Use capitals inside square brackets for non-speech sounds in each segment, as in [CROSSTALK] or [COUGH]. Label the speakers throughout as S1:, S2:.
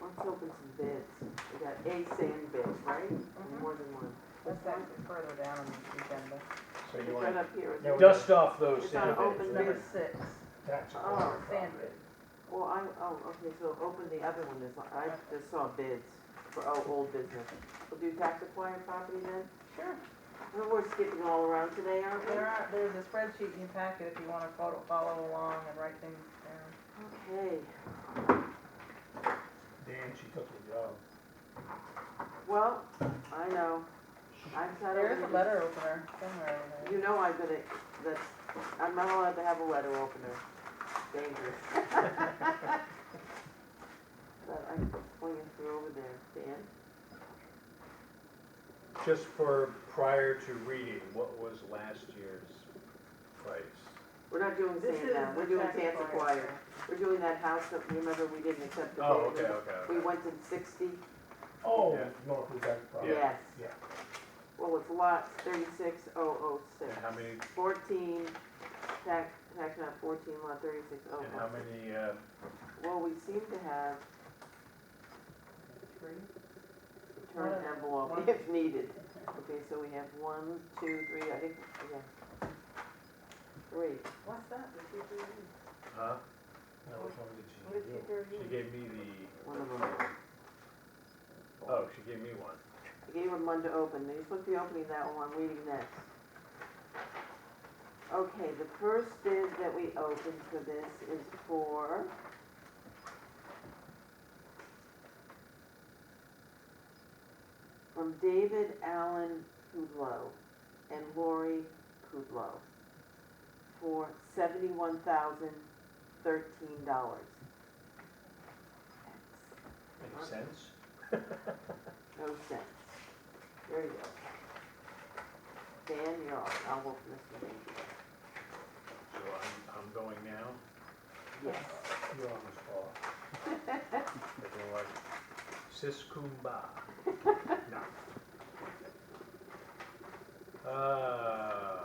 S1: to open some bids. We got a sand bid, right? More than one.
S2: Mm-hmm. That's actually further down on the agenda.
S3: So
S1: It's
S3: you
S1: right
S3: want
S1: up here.
S3: No,
S1: isn't it?
S4: Dust off those
S1: It's not
S4: sand
S1: open
S4: beds,
S1: bid.
S4: right?
S2: Number six,
S3: tax
S1: Oh,
S3: acquired
S2: sand
S3: property.
S1: Well, I, oh, okay, so open the other one. There's, I just saw bids for, oh, old business. We'll do tax acquired property then?
S2: Sure.
S1: Well, We're skipping all around today, aren't we?
S2: There are, there's a spreadsheet in your packet if you wanna follow, follow along and write things down.
S1: Okay.
S3: Dan, she took the job.
S1: Well, I know. I'm tired of.
S2: There is a letter opener somewhere in there.
S1: You know I'm gonna, that's, I'm not allowed to have a letter opener. Dangerous. [LAUGHS] But I'm pointing through over there, Dan.
S4: Just for prior to reading, what was last year's price?
S1: We're not doing
S2: This
S1: sand now,
S2: is
S1: we're
S2: the
S1: doing
S2: tax
S1: sand acquired.
S2: acquired.
S1: We're doing that house that, you remember, we didn't accept the bid.
S4: Oh, okay, okay,
S1: We
S4: okay.
S1: went to sixty,
S3: Oh,
S4: Yeah.
S3: Norfolk tax property.
S1: yes.
S3: Yeah.
S1: Well, it's lots thirty-six oh oh six.
S4: And how many,
S1: Fourteen, tax, tax map fourteen, lot thirty-six oh
S4: and how
S1: oh.
S4: many, uh,
S1: Well, we seem to have
S2: Three.
S1: return
S2: One-
S1: envelope
S2: one-
S1: if needed. Okay, so we have one, two, three, I think, yeah. Three.
S2: What's that? The two, three, three?
S4: huh?
S3: Now, which one did
S2: What is
S3: she
S2: two,
S3: do?
S2: three,
S4: She
S2: three?
S4: gave me the,
S1: One of them.
S4: oh, she gave me one.
S1: I gave him one to open, they supposed to be opening that one, I'm reading next. Okay, the first bid that we opened for this is for. From David Allen Pudlow and Lori Pudlow for seventy-one thousand thirteen dollars.
S4: Makes sense?
S1: No sense. There you go. Dan, you're on. I'll work Mr. Mayhew.
S4: So I'm, I'm going now,
S1: Yes.
S3: You're on the spot.
S4: they're like, sis kumbah. No. Uh,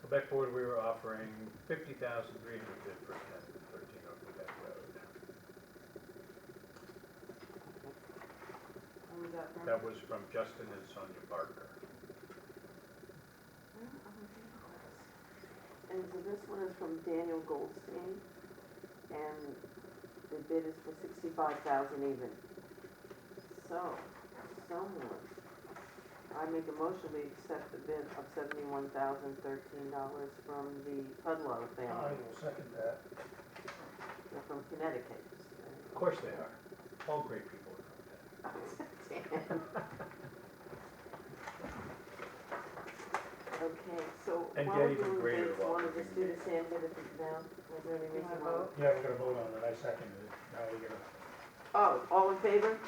S4: Quebec Board, we were offering fifty thousand three hundred for ten thirteen oh Quebec Road.
S2: What was that from?
S4: That was from Justin and Sonia Barker.
S1: And so this one is from Daniel Goldstein, and the bid is for sixty-five thousand even. So, someone, I make a motion we accept the bid of seventy-one thousand thirteen dollars from the Pudlow
S3: I
S1: family,
S3: will second that.
S1: They're from Connecticut.
S4: Of course they are. All great people are from there.
S1: Okay, so
S4: And
S1: why
S4: get
S1: would
S4: even
S1: you
S4: greater
S1: raise one of
S4: lottery
S1: the student
S4: games.
S1: sand bid if it's down? Is there any
S2: You
S1: reason
S2: wanna
S1: why?
S2: vote?
S3: Yeah, we're gonna vote on it. I seconded it. Now we're gonna,
S1: Oh, all in favor?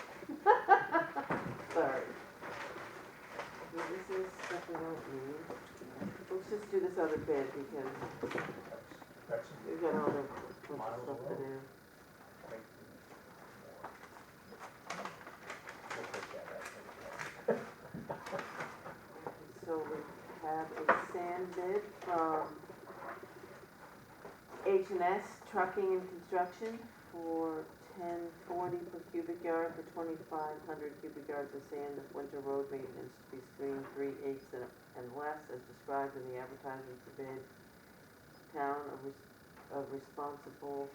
S1: [LAUGHS] Sorry. Well, This is stuff we don't need. Let's just do this other bid because
S3: that's,
S1: we've got all the bunch of
S3: Miles
S1: stuff to
S3: away.
S1: do.
S3: that's. like, more. We'll take that out.
S1: So we have a sand bid from H and S Trucking and Construction for ten forty per cubic yard for twenty-five hundred cubic yards of sand of winter road maintenance to be screened three eighths and and less as described in the advertisement for bid. Town of res- of responsible,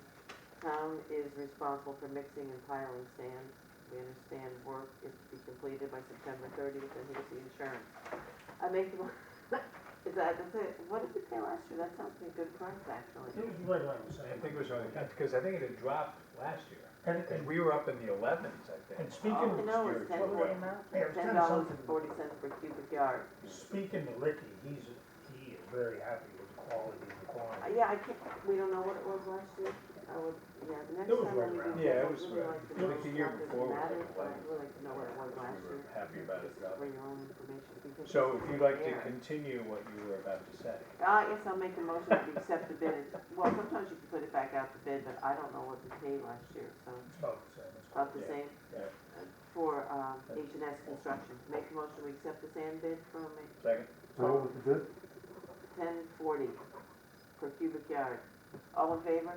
S1: town is responsible for mixing and piling sand. We understand work is to be completed by September thirtieth, and here's the insurance. I make the, mo- [LAUGHS] is that, that's it, what did we pay last year? That sounds like a good price,
S3: It
S1: actually.
S3: was right around the
S4: I
S3: same.
S4: think it was only, because I think it had dropped last year.
S3: And,
S4: And
S3: and,
S4: we were up in the elevens, I think.
S3: and speaking
S1: Oh,
S3: of.
S1: no, it's
S2: What
S4: What
S1: ten
S2: was the
S1: forty,
S2: amount?
S3: Yeah, it was
S1: ten
S3: kinda
S1: dollars and
S3: something-
S1: forty cents per cubic yard.
S3: Speaking to Licky, he's, he is very happy with the quality and the
S1: Uh,
S3: quantity.
S1: Yeah, I can't, we don't know what it was last year. I would, yeah, the next
S3: It was
S1: time
S3: right
S1: when we do
S3: around.
S1: this,
S4: Yeah, it
S1: I'd
S4: was
S1: really
S4: right.
S1: like to
S4: I
S1: know.
S4: think the year
S1: not that it
S4: before was
S1: matters, but
S4: like
S1: I'd
S4: eleven.
S1: really like to know what it was
S4: We
S1: last year.
S4: were happy about it,
S1: Just For
S4: though.
S1: your own information, because.
S4: So if you'd like to
S1: Yeah.
S4: continue what you were about to say.
S1: Uh, yes, I'll make a motion to accept the bid. Well, sometimes you can put it back out to bid, but I don't know what we paid last year, so
S3: It's about the same. It's
S1: about the
S4: Yeah,
S1: same.
S4: yeah.
S1: Uh, For, um, H and S Construction. Make a motion to accept the sand bid from
S4: Second?
S1: ten forty per cubic yard. All in favor?